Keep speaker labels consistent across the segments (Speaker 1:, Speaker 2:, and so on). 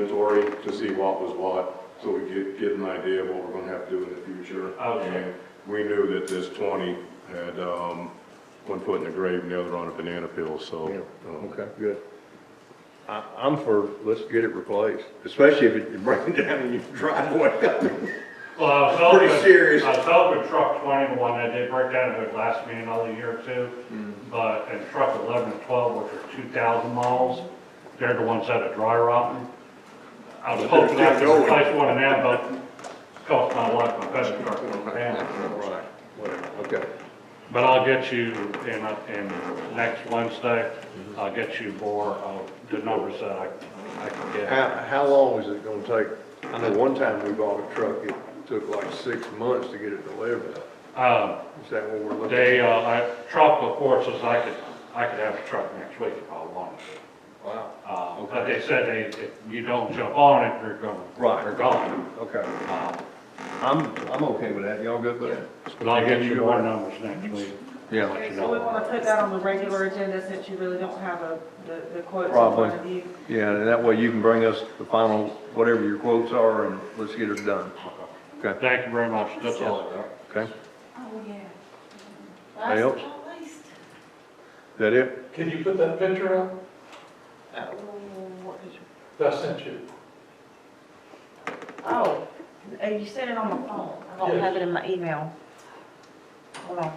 Speaker 1: to see what was what, so we get, get an idea of what we're gonna have to do in the future.
Speaker 2: Okay.
Speaker 1: And We knew that this twenty had, um, one foot in the grave and the other on a banana peel, so.
Speaker 3: Yeah,
Speaker 1: um,
Speaker 3: okay, good. I, I'm for, let's get it replaced, especially if it's breaking down in your driveway.
Speaker 2: Well, I was talking,
Speaker 3: Pretty serious.
Speaker 2: I was talking with truck twenty, the one that did break down at the last meeting all the year or two.
Speaker 3: Mm-hmm.
Speaker 2: But, and truck eleven and twelve, which are two thousand miles, they're the ones that are dry rotting. I was
Speaker 3: But they're
Speaker 2: hoping I could
Speaker 3: still going.
Speaker 2: replace one of them, but cost my life, my best truck broke down.
Speaker 3: Right, whatever, okay.
Speaker 2: But I'll get you in, in next Wednesday,
Speaker 3: Mm-hmm.
Speaker 2: I'll get you more of the numbers that I, I can get.
Speaker 3: How, how long is it gonna take? I know one time we bought a truck, it took like six months to get it delivered.
Speaker 2: Um,
Speaker 3: Is that what we're looking?
Speaker 2: They, uh, I, truck reports says I could, I could have a truck next week if I wanted to.
Speaker 3: Wow,
Speaker 2: Uh, but they said they, if you don't jump on it, they're gonna,
Speaker 3: Right.
Speaker 2: they're gone.
Speaker 3: okay.
Speaker 2: Uh,
Speaker 3: I'm, I'm okay with that, y'all good with that?
Speaker 2: But I'll get you more numbers next week.
Speaker 3: Yeah.
Speaker 4: Okay, so we want to put that on the regular agenda since you really don't have a, the the quotes in
Speaker 3: Probably.
Speaker 4: front of you.
Speaker 3: Yeah, and that way you can bring us the final, whatever your quotes are, and let's get it done, okay?
Speaker 2: Thank you very much, that's all I got.
Speaker 3: Okay,
Speaker 5: Oh, yeah.
Speaker 3: Anybody
Speaker 5: Last
Speaker 3: else?
Speaker 5: but not least.
Speaker 3: is that it?
Speaker 6: Can you put that picture up
Speaker 5: Oh, what did you-
Speaker 6: that I sent you?
Speaker 4: Oh, uh, you sent it on my phone. I don't have it in my email. Hold on.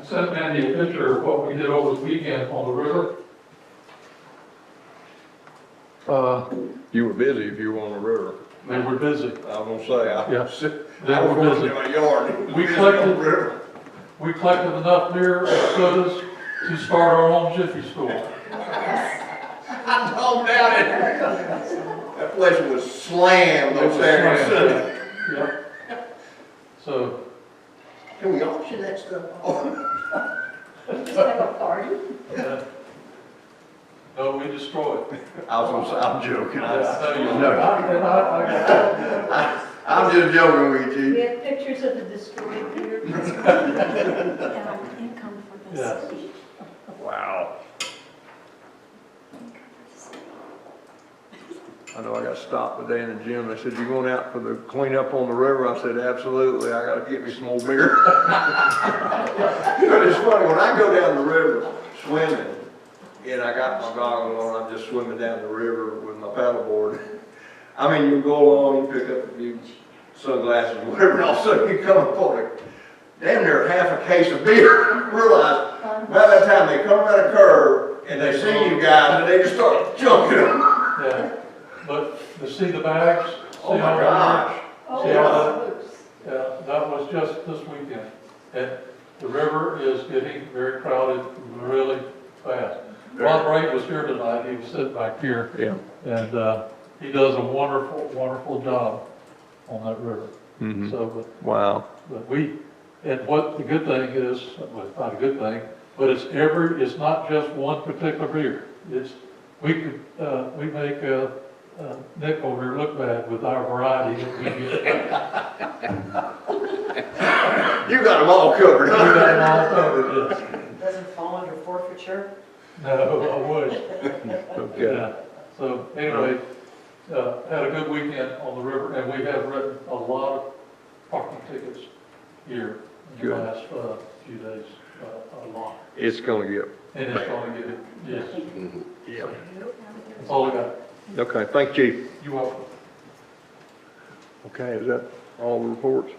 Speaker 6: I sent Mandy a picture of what we did over the weekend on the river.
Speaker 3: Uh. You were busy if you were on the river,
Speaker 6: They were busy.
Speaker 3: I was gonna
Speaker 6: Yes,
Speaker 3: say, I.
Speaker 6: They were busy.
Speaker 3: my yard.
Speaker 6: We collected, we collected enough beer and sodas to start our own Jiffy Store.
Speaker 3: I don't doubt it. That place was slammed
Speaker 6: It was
Speaker 3: on Saturday and
Speaker 6: slammed.
Speaker 3: Sunday.
Speaker 6: Yeah. So,
Speaker 3: Can we auction that stuff off?
Speaker 6: no, we destroyed.
Speaker 3: I was gonna say, I'm joking.
Speaker 6: Yeah,
Speaker 3: I-
Speaker 6: I know you-
Speaker 3: No.
Speaker 6: I- and I- I-
Speaker 3: I'm just joking with you,
Speaker 7: We
Speaker 3: Chief.
Speaker 7: have pictures of the destroyed beer.
Speaker 5: Yeah, Income for the
Speaker 6: Yes.
Speaker 5: city.
Speaker 3: Wow. I know I got stopped today in the gym. They said, you going out for the cleanup on the river? I said, absolutely. I gotta get me some more beer. You know, it's funny, when I go down the river swimming, and I got my goggles on, I'm just swimming down the river with my paddleboard. I mean, you go along, you pick up a few sunglasses, whatever, and all of a sudden you come upon a damn near half a case of beer. Realize, by that time, they come around a curve, and they see you guys, and they just start junking them.
Speaker 6: Yeah. But to see the bags. see
Speaker 3: Oh,
Speaker 6: how
Speaker 3: my
Speaker 6: they
Speaker 3: gosh.
Speaker 7: Oh,
Speaker 6: See how
Speaker 7: those.
Speaker 6: Yeah, that was just this weekend. And the river is getting very crowded really fast. Bob Wright was here tonight, he was sitting back here,
Speaker 3: Yeah.
Speaker 6: and uh, he does a wonderful, wonderful job on that river. So,
Speaker 3: Mm-hmm. Wow.
Speaker 6: but, but we, and what the good thing is, uh, well, it's not a good thing, but it's every, it's not just one particular beer. It's, we could, uh, we make uh, uh, Nick over here look bad with our variety that we get.
Speaker 3: You got them all covered,
Speaker 6: We
Speaker 3: huh?
Speaker 6: got it all covered, yes.
Speaker 4: Doesn't fall under forfeiture?
Speaker 6: No, I wish.
Speaker 3: Okay.
Speaker 6: Yeah. So anyway, uh, had a good weekend on the river and we have written a lot of parking tickets here in the
Speaker 3: Good.
Speaker 6: last, uh, few days, uh, a lot.
Speaker 3: It's gonna get,
Speaker 6: And it's gonna get, yes,
Speaker 3: yeah.
Speaker 6: that's all I got.
Speaker 3: Okay, thank you, Chief.
Speaker 6: You welcome.
Speaker 3: Okay, is that all the reports?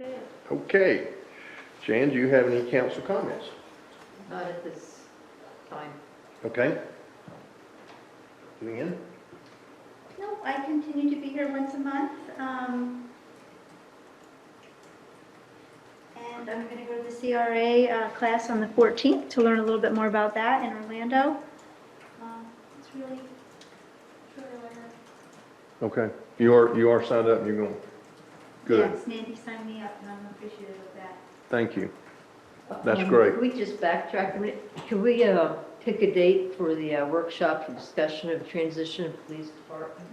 Speaker 7: That's it.
Speaker 3: Okay. Jan, do you have any council comments?
Speaker 7: Not at this time.
Speaker 3: Okay. Lynn?
Speaker 8: No, I continue to be here once a month. um, And I'm going to go to the CRA uh, class on the 14th to learn a little bit more about that in Orlando. Um, It's really, it's really what I-
Speaker 3: Okay, you are, you are signed up, and you're going. Good,
Speaker 8: Yes, Nancy signed me up, and I'm appreciative of that.
Speaker 3: thank you. That's great.
Speaker 9: Can Um, we just backtrack a minute? Can we uh, pick a date for the uh, workshop for discussion of transition of police department?